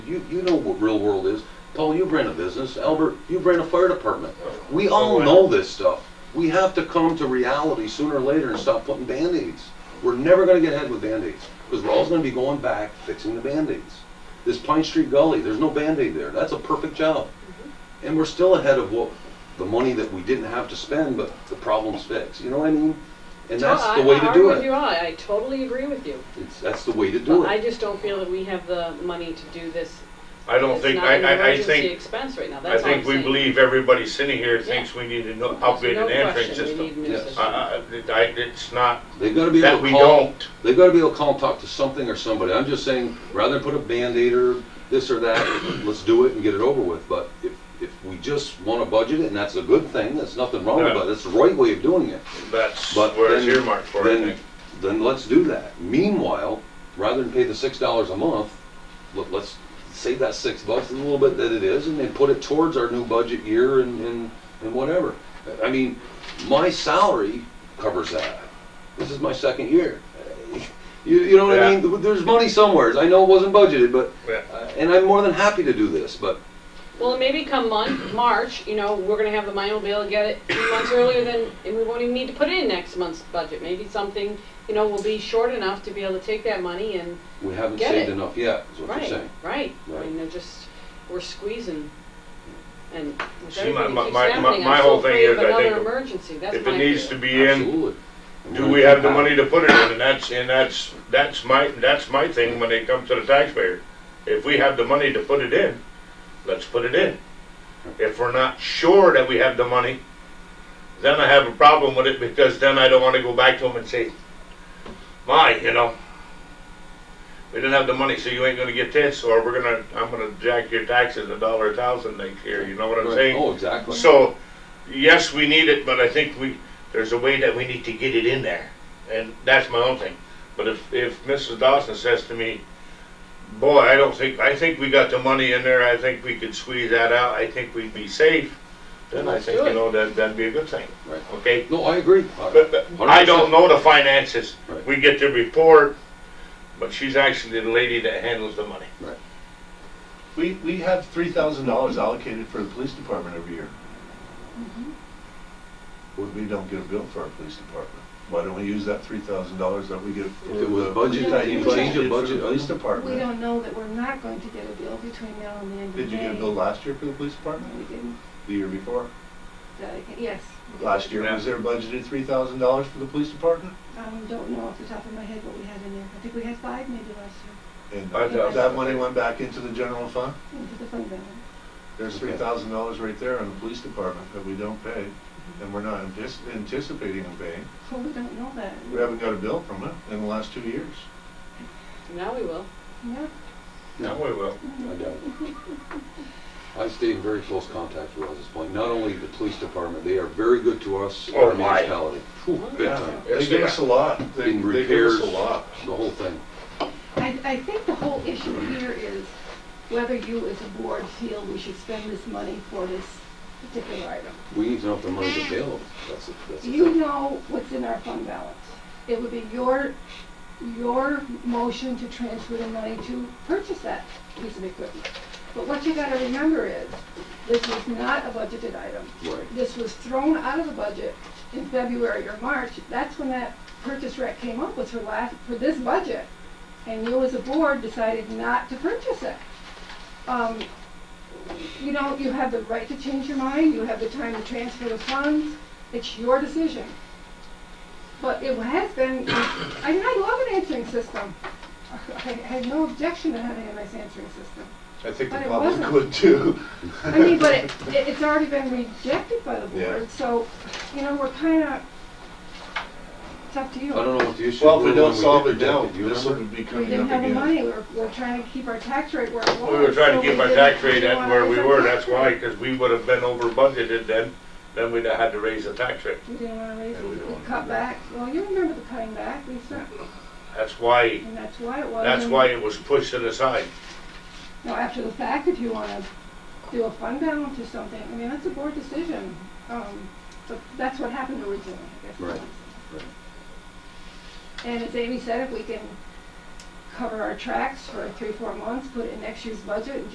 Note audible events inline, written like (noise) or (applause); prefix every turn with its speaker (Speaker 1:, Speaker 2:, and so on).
Speaker 1: You, you know what real world is. Paul, you ran a business. Albert, you ran a fire department. We all know this stuff. We have to come to reality sooner or later and stop putting band-aids. We're never gonna get ahead with band-aids, because we're always gonna be going back fixing the band-aids. This Pine Street Gully, there's no band-aid there. That's a perfect job.
Speaker 2: Mm-hmm.
Speaker 1: And we're still ahead of what, the money that we didn't have to spend, but the problem's fixed. You know what I mean? And that's
Speaker 2: No,
Speaker 1: the
Speaker 2: I-
Speaker 1: way to do
Speaker 2: I argue with you
Speaker 1: it.
Speaker 2: all. I totally agree with you.
Speaker 1: It's, that's the way to do
Speaker 2: But I
Speaker 1: it.
Speaker 2: just don't feel that we have the money to do this.
Speaker 3: I don't
Speaker 2: It's
Speaker 3: think,
Speaker 2: not
Speaker 3: I,
Speaker 2: an
Speaker 3: I, I
Speaker 2: emergency
Speaker 3: think,
Speaker 2: expense right now,
Speaker 3: I
Speaker 2: that's all I'm
Speaker 3: think we
Speaker 2: saying.
Speaker 3: believe everybody sitting here
Speaker 2: Yeah.
Speaker 3: thinks we need to know-
Speaker 2: There's
Speaker 3: upgrade
Speaker 2: no
Speaker 3: an entrance
Speaker 2: question we
Speaker 3: system. Uh-uh.
Speaker 2: need new
Speaker 1: Yes.
Speaker 2: systems.
Speaker 3: I, I, I- it's not
Speaker 1: They've gotta be able
Speaker 3: that
Speaker 1: to
Speaker 3: we
Speaker 1: call.
Speaker 3: don't.
Speaker 1: They've got to be able to call and talk to something or somebody. I'm just saying, rather than put a Band-Aid or this or that, (coughs) let's do it and get it over with. But if, if we just want to budget it, and that's a good thing, that's nothing wrong with
Speaker 3: Yeah.
Speaker 1: it, that's the right way of doing it.
Speaker 3: That's
Speaker 1: But
Speaker 3: where it's
Speaker 1: then-
Speaker 3: earmarked for, I
Speaker 1: Then,
Speaker 3: think.
Speaker 1: then let's do that. Meanwhile, rather than pay the six dollars a month, let, let's save that six bucks a little bit that it is and then put it towards our new budget year and, and, and whatever. I mean, my salary covers that. This is my second year. You, you know what I
Speaker 3: Yeah.
Speaker 1: mean? There's money somewhere. I know it wasn't budgeted, but,
Speaker 3: Yeah.
Speaker 1: uh, and I'm more than happy to do this, but
Speaker 2: Well, maybe come month, March, you know, we're gonna have the money, we'll be able to get it two months earlier than, and we won't even need to put it in next month's budget. Maybe something, you know, will be short enough to be able to take that money and,
Speaker 1: we haven't
Speaker 2: Get
Speaker 1: saved
Speaker 2: it.
Speaker 1: enough yet, is what you're
Speaker 2: right,
Speaker 1: saying.
Speaker 2: right. I
Speaker 1: Right.
Speaker 2: mean, they're just, we're squeezing. And with
Speaker 3: See, my-
Speaker 2: everything
Speaker 3: my-
Speaker 2: that keeps
Speaker 3: my- my-
Speaker 2: happening,
Speaker 3: my
Speaker 2: I'm
Speaker 3: whole
Speaker 2: so
Speaker 3: thing
Speaker 2: afraid of
Speaker 3: is, I
Speaker 2: another
Speaker 3: think
Speaker 2: emergency, that's my
Speaker 3: If it needs to
Speaker 2: fear.
Speaker 3: be in,
Speaker 1: Absolutely.
Speaker 3: do we have the money to put it in? And that's, and that's, that's my, that's my thing when it comes to the taxpayer. If we have the money to put it in, let's put it in. If we're not sure that we have the money, then I have a problem with it because then I don't wanna go back to them and say, my, you know, we didn't have the money, so you ain't gonna get this, or we're gonna, I'm gonna jack your taxes a dollar a thousand next year, you know what I'm
Speaker 1: Right.
Speaker 3: saying?
Speaker 1: Oh, exactly.
Speaker 3: So, yes, we need it, but I think we, there's a way that we need to get it in there. And that's my own thing. But if, if Mrs. Dawson says to me, boy, I don't think, I think we got the money in there, I think we could squeeze that out, I think we'd be safe, then I
Speaker 1: Let's
Speaker 3: think,
Speaker 2: do
Speaker 3: you
Speaker 2: it.
Speaker 3: know, that, that'd be a good thing,
Speaker 1: Right.
Speaker 3: okay?
Speaker 1: No, I agree.
Speaker 3: But, but I don't know the finances.
Speaker 1: Right.
Speaker 3: We get the report, but she's actually the lady that handles the money.
Speaker 4: We, we have three thousand dollars allocated for the police department every year.
Speaker 1: Mm-hmm.
Speaker 4: We, we don't get a bill for our police department. Why don't we use that three thousand dollars that we get for
Speaker 1: If it was
Speaker 4: the
Speaker 1: budgeted,
Speaker 4: that
Speaker 5: you
Speaker 4: you
Speaker 5: change
Speaker 1: the
Speaker 4: budgeted for
Speaker 1: budget,
Speaker 4: the police
Speaker 1: uh,
Speaker 5: We
Speaker 4: department?
Speaker 5: don't know that we're not going to get a bill between now and the end of May.
Speaker 4: Did you get a bill last year for the police department?
Speaker 5: We didn't,
Speaker 4: The year before?
Speaker 5: uh, yes.
Speaker 4: Last year, was there budgeted three thousand dollars for the police department?
Speaker 5: Um, don't know off the top of my head what we had in there. I think we had five maybe last year
Speaker 4: And
Speaker 3: I
Speaker 5: doubt
Speaker 4: that
Speaker 5: it.
Speaker 4: money went back into the general fund?
Speaker 5: into the fund balance.
Speaker 4: There's three thousand dollars right there in the police department that we don't pay, and we're not antis- anticipating paying.
Speaker 5: Well, we don't know that.
Speaker 4: We haven't got a bill from it in the last two years.
Speaker 2: Now we will.
Speaker 5: Yeah.
Speaker 3: No, we will.
Speaker 1: I doubt it. I stay in very close contact with Rouse's Point, not only the police department, they are very good to us,
Speaker 3: Oh,
Speaker 1: our
Speaker 3: my.
Speaker 1: municipality. Phew, big time.
Speaker 4: They give us a lot.
Speaker 1: In
Speaker 4: They, they give us
Speaker 1: repairs,
Speaker 4: a lot.
Speaker 1: the whole thing.
Speaker 5: I, I think the whole issue here is whether you as a board feel we should spend this money for this particular item.
Speaker 1: We need to know if the money's available, that's, the- that's. the
Speaker 5: You
Speaker 1: thing.
Speaker 5: know what's in our fund balance. It would be your, your motion to transfer the money to purchase that piece of equipment. But what you gotta remember is, this is not a budgeted item.
Speaker 1: Right,
Speaker 5: This was thrown out of the budget in February or March. That's when that purchase rec came up with for last, for this budget. And you as a board decided not to purchase it. Um, you know, you have the right to change your mind, you have the time to transfer the funds, it's your decision. But it has been, I mean, I love an answering system. I had no objection to having a nice answering system.
Speaker 4: I think the
Speaker 5: But it
Speaker 4: public
Speaker 5: wasn't.
Speaker 4: would too.
Speaker 5: I mean, but it, it- it's already been rejected by the
Speaker 4: Yeah.
Speaker 5: board, so, you know, we're kinda, it's up to
Speaker 1: I
Speaker 5: you.
Speaker 1: don't know what the issue.
Speaker 4: Well, if we
Speaker 1: were
Speaker 4: don't
Speaker 1: when did
Speaker 4: solve it
Speaker 1: reject
Speaker 4: now,
Speaker 1: Do you
Speaker 4: this
Speaker 1: remember?
Speaker 4: would be
Speaker 5: We
Speaker 4: coming
Speaker 5: didn't
Speaker 4: up
Speaker 5: have the
Speaker 4: again.
Speaker 5: money, we were, we were trying to keep our tax rate where it was.
Speaker 3: We were trying
Speaker 5: so
Speaker 3: to keep
Speaker 5: we
Speaker 3: our tax
Speaker 5: didn't-
Speaker 3: rate
Speaker 5: we
Speaker 3: at where we
Speaker 5: wanted
Speaker 3: were,
Speaker 5: our
Speaker 3: that's
Speaker 5: tax
Speaker 3: why,
Speaker 5: rate.
Speaker 3: because we would have been over budgeted then, then we'd have had to raise the tax rate.
Speaker 5: We didn't wanna raise
Speaker 4: Yeah, we
Speaker 5: it,
Speaker 4: don't
Speaker 5: we
Speaker 4: wanna
Speaker 5: cut
Speaker 4: do that.
Speaker 5: back, well, you remember the cutting back, we spent,
Speaker 3: That's why,
Speaker 5: and that's why it was.
Speaker 3: that's why it was pushed to the side.
Speaker 5: Now, after the fact, if you wanna do a fund balance or something, I mean, that's a board decision, um, but that's what happened originally, I guess. is what I'm
Speaker 1: Right,
Speaker 5: saying. And as Amy said, if we can cover our tracks for three, four months, put it in next year's budget, and